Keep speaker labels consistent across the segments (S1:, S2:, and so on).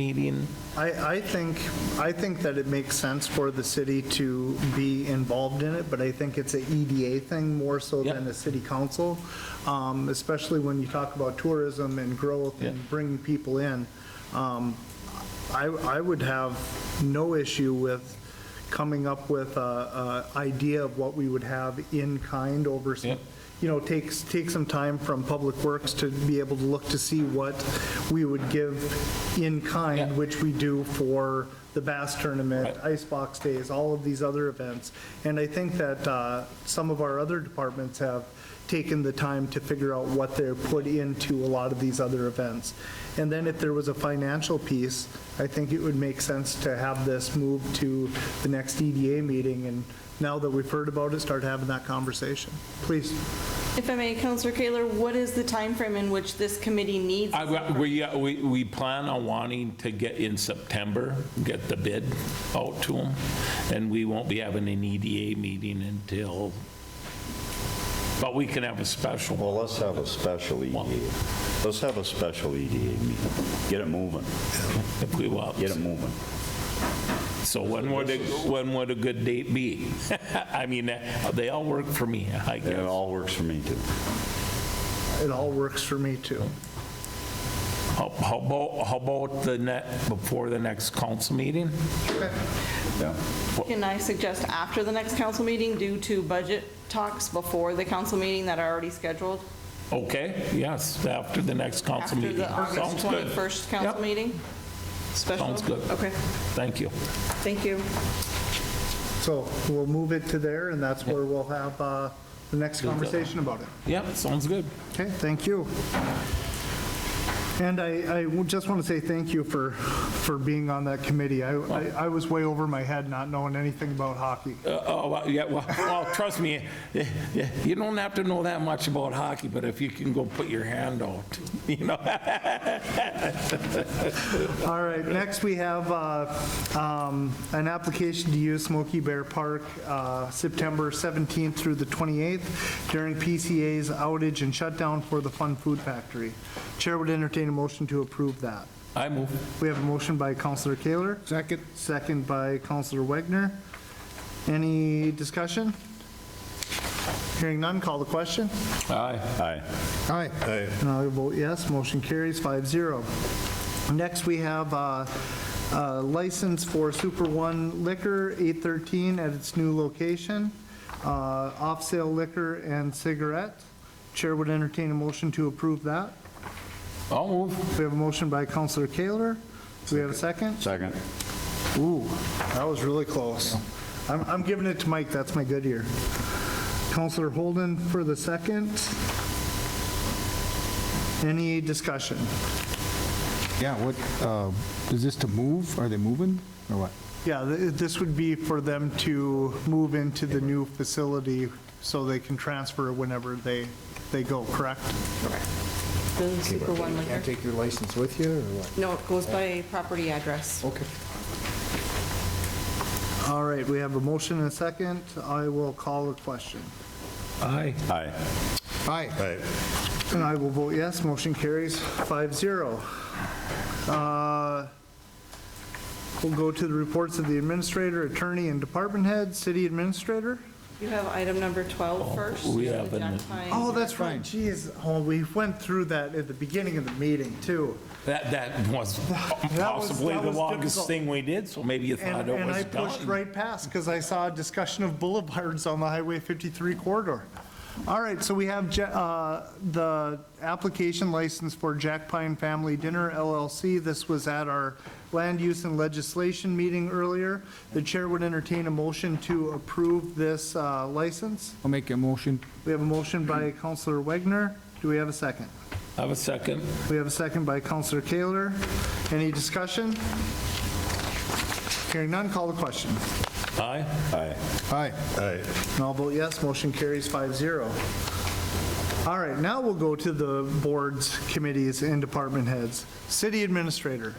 S1: meeting?
S2: I, I think, I think that it makes sense for the city to be involved in it, but I think it's a EDA thing more so
S1: Yeah.
S2: than a city council, um, especially when you talk about tourism and growth
S1: Yeah.
S2: and bringing people in. Um, I, I would have no issue with coming up with a, a idea of what we would have in kind over some,
S1: Yeah.
S2: you know, takes, take some time from Public Works to be able to look to see what we would give in
S1: Yeah.
S2: kind, which we do for the bass tournament,
S1: Right.
S2: icebox days, all of these other events. And I think that uh, some of our other departments have taken the time to figure out what they're put into a lot of these other events. And then if there was a financial piece, I think it would make sense to have this move to the next EDA meeting, and now that we've heard about it, start having that conversation. Please.
S3: If I may, Counselor Kaler, what is the timeframe in which this committee needs?
S1: I, we, uh, we, we plan on wanting to get in September, get the bid out to them, and we won't be having an EDA meeting until, but we can have a special.
S4: Well, let's have a special EDA.
S1: Well-
S4: Let's have a special EDA meeting. Get it moving,
S1: If we want.
S4: get it moving.
S1: So when would, a- when would a good date be? I mean, uh, they all work for me, I
S4: And it
S1: guess.
S4: all works for me, too.
S2: It all works for me, too.
S1: How how about, how about the net, before the next council meeting?
S4: Yeah.
S3: Can I suggest after the next council meeting due to budget talks before the council meeting that are already scheduled?
S1: Okay, yes, after the next council
S3: After
S1: meeting.
S3: the August
S1: Sounds good.
S3: 21st
S1: Yep.
S3: council meeting? Special?
S1: Sounds good.
S3: Okay,
S1: Thank you.
S3: thank you.
S2: So we'll move it to there, and that's where we'll have uh, the next conversation about it.
S1: Yeah, sounds good.
S2: Okay, thank you. And I, I would just want to say thank you for, for being on that committee. I, I I was way over my head not knowing anything about hockey.
S1: Uh, Oh, well, yeah, well, well, trust me, eh, eh, you don't have to know that much about hockey, but if you can go put your hand out, you know?
S2: All right, next we have uh, um, an application to use Smoky Bear Park uh, September 17th through the 28th during PCA's outage and shutdown for the Fun Food Factory. Chair would entertain a motion to approve that.
S1: I move.
S2: We have a motion by Counselor Kaler. Second. Second by Counselor Wagner. Any discussion? Hearing none, call the question.
S1: Aye.
S4: Aye.
S2: Aye. And I will vote yes, motion carries 5-0. Next, we have uh, uh, license for Super One Liquor, 813 at its new location, uh, off-sale liquor and cigarette. Chair would entertain a motion to approve that.
S1: I'll move.
S2: We have a motion by Counselor Kaler. Do we have a second?
S4: Second.
S2: Ooh, that was really close. I'm, I'm giving it to Mike, that's my good ear. Counselor Holden for the second. Any discussion?
S5: Yeah, what, uh, is this to move? Are they moving or what?
S2: Yeah, th- this would be for them to move into the new facility so they can transfer whenever they, they go, correct?
S3: The Super One liquor.
S5: take your license with you or what?
S3: No, it goes by property address.
S5: Okay.
S2: All right, we have a motion and a second. I will call a question.
S1: Aye.
S4: Aye.
S5: Aye.
S2: And I will vote yes, motion carries 5-0. zero. Uh, We'll go to the reports of the administrator, attorney, and department head, city administrator.
S3: You have item number 12 first.
S1: Oh, we have
S3: the
S1: an-
S3: Jack Pine.
S2: Oh, that's right,
S5: Fine.
S2: Jeez, oh, we went through that at the beginning of the meeting, too.
S1: That, that was possibly
S2: that
S1: the
S2: was
S1: longest
S2: difficult.
S1: thing we did, so maybe you thought
S2: And
S1: it
S2: and
S1: was
S2: I pushed
S1: done.
S2: right past, because I saw a discussion of boulevards on the Highway 53 corridor. All right, so we have Ja- uh, the application license for Jack Pine Family Dinner LLC. This was at our land use and legislation meeting earlier. The chair would entertain a motion to approve this uh, license.
S5: I'll make a motion.
S2: We have a motion by Counselor Wagner. Do we have a second?
S1: Have a second.
S2: We have a second by Counselor Kaler. Any discussion? Hearing none, call the question.
S1: Aye.
S4: Aye.
S5: Aye.
S2: And I'll vote yes, motion carries 5-0. All right, now we'll go to the boards, committees, and department heads. City Administrator.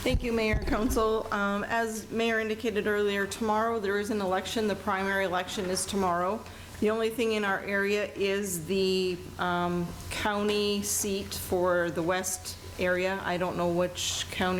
S3: Thank you, Mayor and Council. Um, As Mayor indicated earlier, tomorrow there is an election. The primary election is tomorrow. The only thing in our area is the um, county seat for the west area. I don't know which county